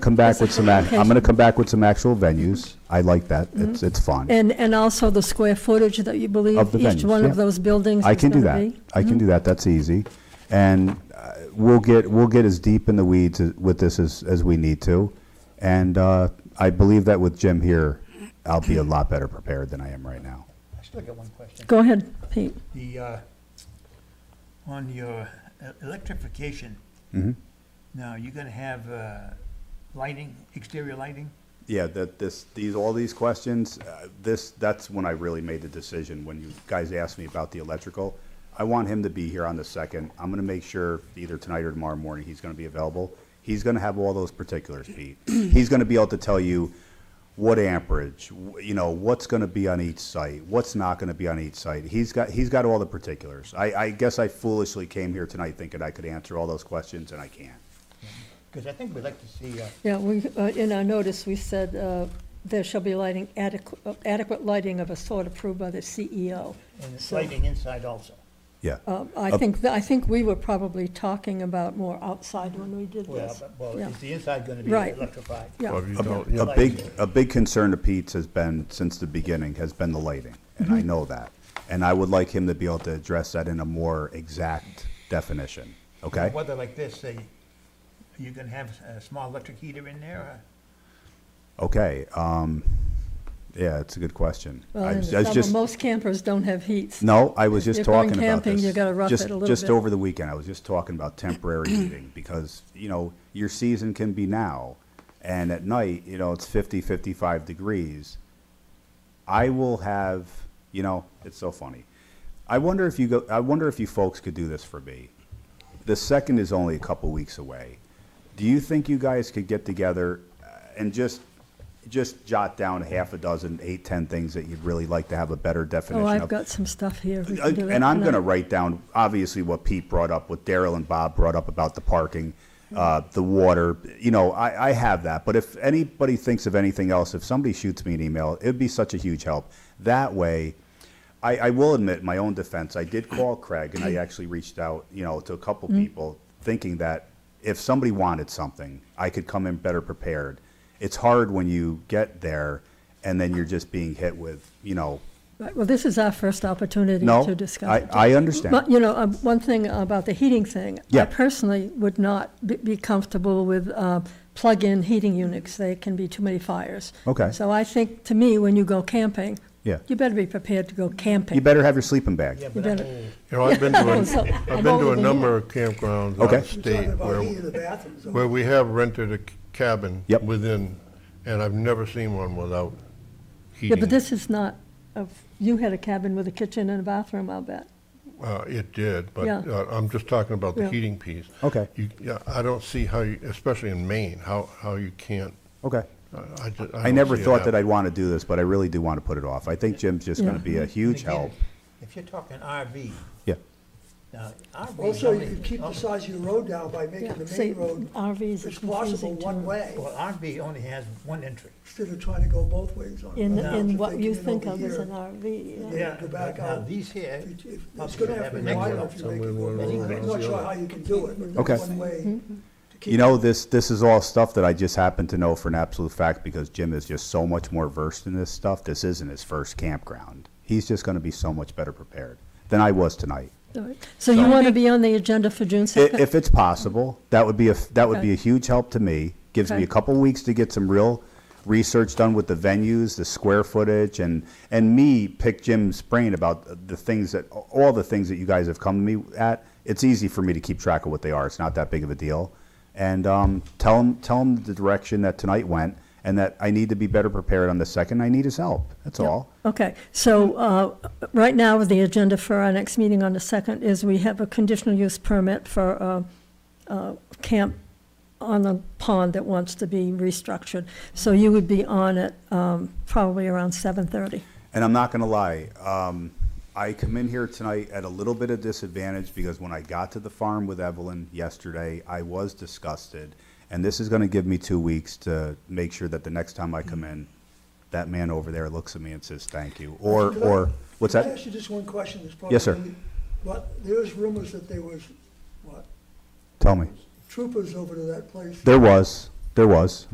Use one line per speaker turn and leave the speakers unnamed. come back with some, ac- I'm going to come back with some actual venues. I like that. It's, it's fun.
Mm-hmm. And, and also the square footage that you
Of
believe
the
each
venues,
one
yeah.
of those buildings
I
is
can do
going to
that.
be?
I can do that. That's easy. And uh, we'll get, we'll get as deep in the weeds as- with this as, as we need to. And uh, I believe that with Jim here, I'll be a lot better prepared than I am right now.
I still got one question.
Go ahead, Pete.
The, uh, on your e- electrification,
Mhm.
now, you're gonna have, uh, lighting, exterior lighting?
Yeah, that this, these, all these questions, uh, this, that's when I really made the decision, when you guys asked me about the electrical. I want him to be here on the second. I'm gonna make sure either tonight or tomorrow morning, he's gonna be available. He's gonna have all those particulars, Pete. He's gonna be able to tell you what amperage, wh- you know, what's gonna be on each site, what's not gonna be on each site. He's got, he's got all the particulars. I, I guess I foolishly came here tonight thinking I could answer all those questions, and I can't.
Because I think we'd like to see, uh,
Yeah, we, uh, in our notice, we said, uh, there shall be lighting adequate, adequate lighting of a sort approved by the CEO.
and it's
So-
lighting inside also.
Yeah.
Uh, I think, tha- I think we were probably talking about more outside when we did
Well,
this.
but- well,
Yeah.
is the inside gonna be
Right.
electrified?
Yeah.
Well, if you don't- yeah.
A big, a big concern of Pete's has been, since the beginning, has been the lighting, and I know that. And I would like him to be able to address that in a more exact definition, okay?
Whether like this, say, you can have a small electric heater in there, or?
Okay, um, yeah, it's a good question.
Well,
I
and
was
the
I was
trouble,
just-
most campers don't have heats.
No, I was just
If you're going
talking about
camping,
this.
you gotta rough
Just-
it a little
Just
bit.
over the weekend, I was just talking about temporary heating, because, you know, your season can be now, and at night, you know, it's 50, 55 degrees. I will have, you know, it's so funny. I wonder if you go, I wonder if you folks could do this for me. The second is only a couple weeks away. Do you think you guys could get together uh, and just, just jot down half a dozen, eight, 10 things that you'd really like to have a better definition
Oh,
of?
I've got some stuff here. We can do that
Uh, And I'm going to
tonight.
write down, obviously, what Pete brought up, what Daryl and Bob brought up about the parking, uh, the water, you know, I, I have that. But if anybody thinks of anything else, if somebody shoots me an email, it'd be such a huge help. That way, I, I will admit, my own defense, I did call Craig, and I actually reached out, you know, to a couple people, thinking that if somebody wanted something, I could come in better prepared. It's hard when you get there, and then you're just being hit with, you know,
Right, Well, this is our first opportunity
No,
to discuss
I,
it.
I understand.
But, you know, um, one thing about the heating thing.
Yeah.
I personally would not be- be comfortable with uh, plug-in heating units. They can be too many fires.
Okay.
So I think, to me, when you go camping.
Yeah.
You better be prepared to go camping.
You better have your sleeping bag.
Yeah, but I'm
better-
old.
You know, I've been to,
So,
a- I've
I'm
been to
older
a
than
number
you.
of campgrounds out
Okay.
of state where,
the bathrooms.
where we have rented a c- cabin
Yep.
within, and I've never seen one without
Yeah,
heating.
but this is not, of- you had a cabin with a kitchen and a bathroom, I'll bet.
Uh, It did, but
Yeah.
uh, I'm just talking about the
Yeah.
heating piece.
Okay.
You- yeah, I don't see how, you especially in Maine, how, how you can't,
Okay.
I- I ju- I
I
don't
never
see it
thought that
happening.
I'd want to do this, but I really do want to put it off. I think Jim's just going to
Yeah.
be a huge
Again,
help.
If you're talking RV,
Yeah.
now, RV.
Also, you
somebody-
could keep
oh,
the size of your road down by
Yeah,
making the
see,
main road
RVs are
as possible
confusing
one
too.
way,
Well, RV only has one entry.
instead of trying to go both ways on. it.
In,
Now,
in
if
what
they
you
come in
think
over
of as
here,
an RV, yeah.
Yeah. go back
Now,
out.
these here.
it- it- It's
up
gonna
here
have to
an
be wide
exit.
enough to make
Somewhere
it go
one
both
way
ways. I'm
or
not
the
sure
other.
how you can do it, but
Okay.
one way.
Mm-hmm.
to keep
You know, this, this is all stuff that I just happen to know for an absolute fact because Jim is just so much more versed in this stuff. This isn't his first campground. He's just going to be so much better prepared than I was tonight.
All right. So you want to be on the agenda for June
I-
2nd?
If it's possible, that would be a, that would be
Okay.
a huge help to me. Gives me
Okay.
a couple weeks to get some real research done with the venues, the square footage, and, and me pick Jim's brain about the things that, all the things that you guys have come to me at. It's easy for me to keep track of what they are. It's not that big of a deal. And, um, tell him, tell him the direction that tonight went and that I need to be better prepared on the second. I need his help. That's all.
Okay, so uh, right now, the agenda for our next meeting on the 2nd is we have a conditional use permit for uh, uh, camp on the pond that wants to be restructured. So you would be on it um, probably around 7:30.
And I'm not gonna lie, um, I come in here tonight at a little bit of disadvantage because when I got to the farm with Evelyn yesterday, I was disgusted. And this is gonna give me two weeks to make sure that the next time I come in, that man over there looks at me and says, thank you, or,
Could I-
or, what's
Can I
that?
ask you just one question? that's
Yes, sir.
probably- But there's rumors that there was, what,
Tell me.
troopers over to that place
There was, there was.